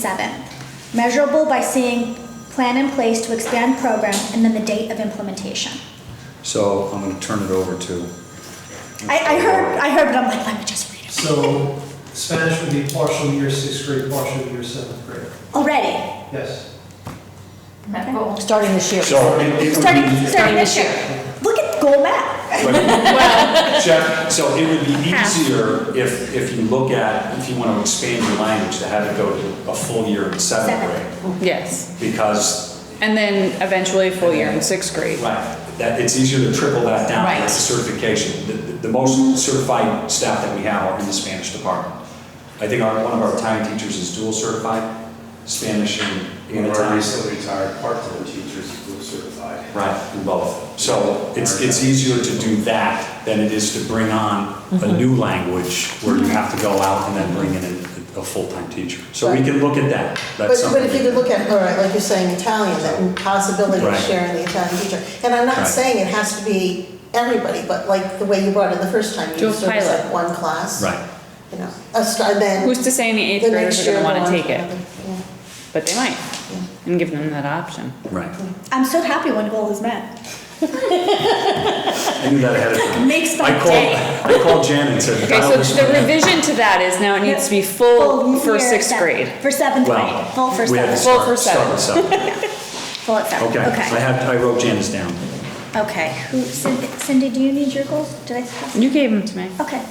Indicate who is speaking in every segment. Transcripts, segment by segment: Speaker 1: Seven, measurable by seeing plan in place to expand program and then the date of implementation.
Speaker 2: So I'm gonna turn it over to,
Speaker 1: I, I heard, I heard, but I'm like, let me just read it.
Speaker 3: So Spanish would be partial year sixth grade, partial year seventh grade.
Speaker 1: Already,
Speaker 3: Yes.
Speaker 4: Starting this year.
Speaker 2: so it- it
Speaker 1: starting,
Speaker 2: would be,
Speaker 1: starting this year. Look at goal map.
Speaker 2: but- Jeff, so it would be easier if, if you look at, if you want to expand your language to have it go to a full year in seventh
Speaker 1: Seven.
Speaker 2: grade.
Speaker 5: Yes,
Speaker 2: Because,
Speaker 5: and then eventually a full year in sixth grade.
Speaker 2: right, that, it's easier to triple that down.
Speaker 5: Right.
Speaker 2: That's a certification. The, the- the most certified staff that we have are in the Spanish department. I think our, one of our Italian teachers is dual certified, Spanish and and
Speaker 6: One of our
Speaker 2: Italian.
Speaker 6: recently retired part-time teachers who are certified.
Speaker 2: Right, in both. So it's, it's easier to do that than it is to bring on a new language where you have to go out and then bring in a, a full-time teacher. So we can look at that.
Speaker 4: But,
Speaker 2: That's
Speaker 4: but if you could
Speaker 2: something.
Speaker 4: look at, all right, like you're saying, Italian, that possibility of
Speaker 2: Right.
Speaker 4: sharing the Italian teacher. And I'm
Speaker 2: Right.
Speaker 4: not saying it has to be everybody, but like the way you brought it the first time,
Speaker 5: Do
Speaker 4: you
Speaker 5: a
Speaker 4: sort of said
Speaker 5: pilot.
Speaker 4: one class.
Speaker 2: Right.
Speaker 4: You know, a star, then.
Speaker 5: Who's to say any eighth
Speaker 4: the next
Speaker 5: graders are
Speaker 4: year
Speaker 5: gonna wanna
Speaker 4: go on
Speaker 5: take it?
Speaker 4: another, yeah.
Speaker 5: But they might, and give them that option.
Speaker 2: Right.
Speaker 1: I'm so happy when goal is met.
Speaker 2: I knew that ahead of time.
Speaker 1: Makes my
Speaker 2: I
Speaker 1: day.
Speaker 2: called, I called Jan and said.
Speaker 5: Okay,
Speaker 2: "I
Speaker 5: so
Speaker 2: wish
Speaker 5: the
Speaker 2: we had-"
Speaker 5: revision to that is now it needs to be full for
Speaker 1: year
Speaker 5: sixth
Speaker 1: seven-
Speaker 5: grade.
Speaker 1: For seventh
Speaker 2: Well,
Speaker 1: grade, full for
Speaker 2: we had to
Speaker 1: seventh,
Speaker 5: Full for
Speaker 2: start- start with seven.
Speaker 1: full at seven,
Speaker 2: Okay, I
Speaker 1: okay.
Speaker 2: had, I wrote Jan's down.
Speaker 1: Okay, who, Cindy, Cindy, do you need your goals? Did I? pass?
Speaker 5: You gave them to me.
Speaker 1: Okay,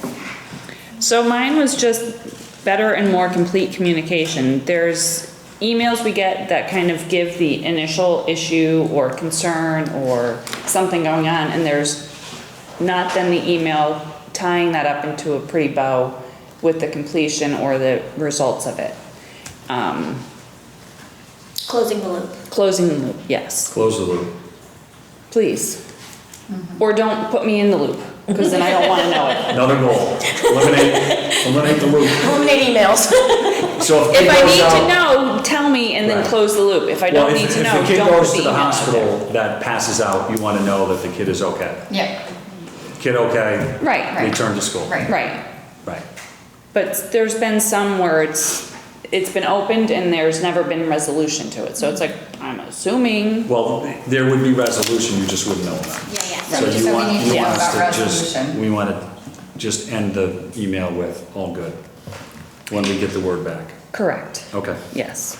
Speaker 5: So mine was just better and more complete communication. There's emails we get that kind of give the initial issue or concern or something going on, and there's not then the email tying that up into a pretty bow with the completion or the results of it. Um,
Speaker 1: closing the loop.
Speaker 5: closing the loop, yes,
Speaker 2: Close the loop.
Speaker 5: please. Or don't put me in the loop, because then I don't want to know it.
Speaker 2: Another goal. Eliminate, eliminate the loop.
Speaker 4: Eliminate emails.
Speaker 2: So if it
Speaker 5: If I
Speaker 2: goes
Speaker 5: need
Speaker 2: out-
Speaker 5: to know, tell me and then
Speaker 2: Right.
Speaker 5: close the loop. If I
Speaker 2: Well,
Speaker 5: don't
Speaker 2: if-
Speaker 5: need to know, don't
Speaker 2: If
Speaker 5: put
Speaker 2: the
Speaker 5: the
Speaker 2: kid goes to
Speaker 5: email
Speaker 2: the
Speaker 5: out there.
Speaker 2: hospital that passes out, you want to know that the kid is okay.
Speaker 7: Yeah,
Speaker 2: Kid okay,
Speaker 5: Right,
Speaker 2: return to school.
Speaker 7: Right.
Speaker 5: right.
Speaker 2: Right.
Speaker 5: But there's been some where it's, it's been opened and there's never been resolution to it. So it's like, I'm assuming,
Speaker 2: Well, there would be resolution, you just wouldn't know about. it.
Speaker 7: yeah, yeah.
Speaker 2: So
Speaker 7: just-
Speaker 2: you want,
Speaker 7: we need
Speaker 2: you
Speaker 7: to
Speaker 2: want
Speaker 7: talk
Speaker 2: us
Speaker 7: about
Speaker 2: to just,
Speaker 7: resolution.
Speaker 2: we want to just end the email with, all good, when we get the word back.
Speaker 5: correct.
Speaker 2: Okay.
Speaker 5: Yes.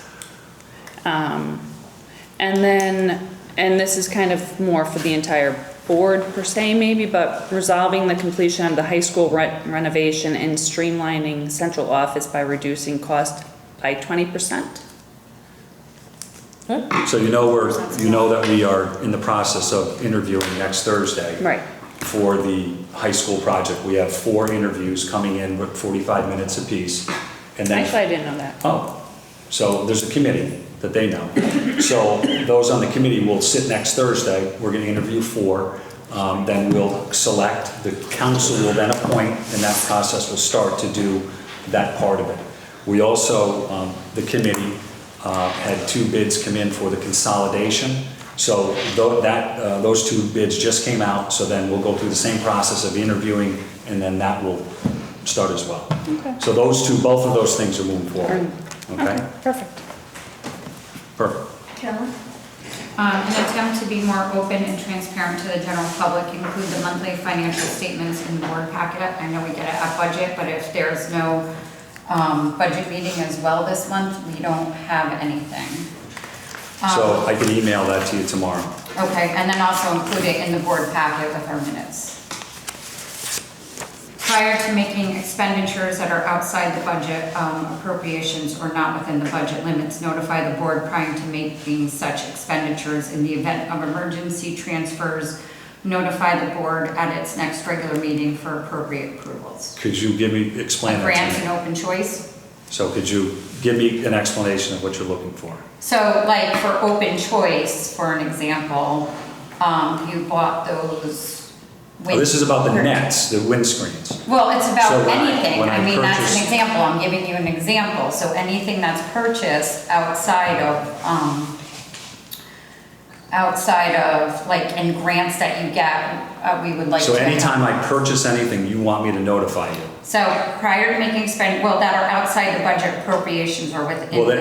Speaker 5: Um, And then, and this is kind of more for the entire board per se maybe, but resolving the completion of the high school re- renovation and streamlining central office by reducing cost by 20%?
Speaker 2: So you know we're, you know that we are in the process of interviewing next Thursday.
Speaker 5: Right.
Speaker 2: For the high school project. We have four interviews coming in with 45 minutes apiece. and then.
Speaker 5: Actually, I didn't know that.
Speaker 2: Oh, so there's a committee that they know. So those on the committee will sit next Thursday, we're gonna interview four, um, then we'll select, the council will then appoint, and that process will start to do that part of it. We also, um, the committee, uh, had two bids come in for the consolidation. So tho- that, uh, those two bids just came out, so then we'll go through the same process of interviewing, and then that will start as well.
Speaker 5: Okay.
Speaker 2: So those two, both of those things are moving forward.
Speaker 5: Okay,
Speaker 2: Okay,
Speaker 5: perfect.
Speaker 2: perfect.
Speaker 1: Carolyn?
Speaker 7: Um, An attempt to be more open and transparent to the general public, include the monthly financial statements in the board packet. I know we get it at budget, but if there's no um, budget meeting as well this month, we don't have anything.
Speaker 2: So
Speaker 7: Um,
Speaker 2: I can email that to you tomorrow.
Speaker 7: Okay, and then also include it in the board packet with our minutes. Prior to making expenditures that are outside the budget um, appropriations or not within the budget limits, notify the board prior to making such expenditures in the event of emergency transfers. Notify the board at its next regular meeting for appropriate approvals.
Speaker 2: Could you give me, explain that
Speaker 7: Grants
Speaker 2: to
Speaker 7: and
Speaker 2: me?
Speaker 7: open choice.
Speaker 2: So could you give me an explanation of what you're looking for? Oh,
Speaker 7: So like for open choice, for an example, um, you bought those.
Speaker 2: Oh, This is about the
Speaker 7: wind-
Speaker 2: nets, the windscreens.
Speaker 7: Well, it's
Speaker 2: So
Speaker 7: about
Speaker 2: when I-
Speaker 7: anything.
Speaker 2: when I
Speaker 7: I mean, that's
Speaker 2: purchase-
Speaker 7: an example. I'm giving you an example. So anything that's purchased outside of, um, outside of, like, in grants that you get, uh, we would like to.
Speaker 2: So anytime I purchase anything, you want me to notify you?
Speaker 7: So prior to making spend, well, that are outside the budget appropriations or within.
Speaker 2: Well, that-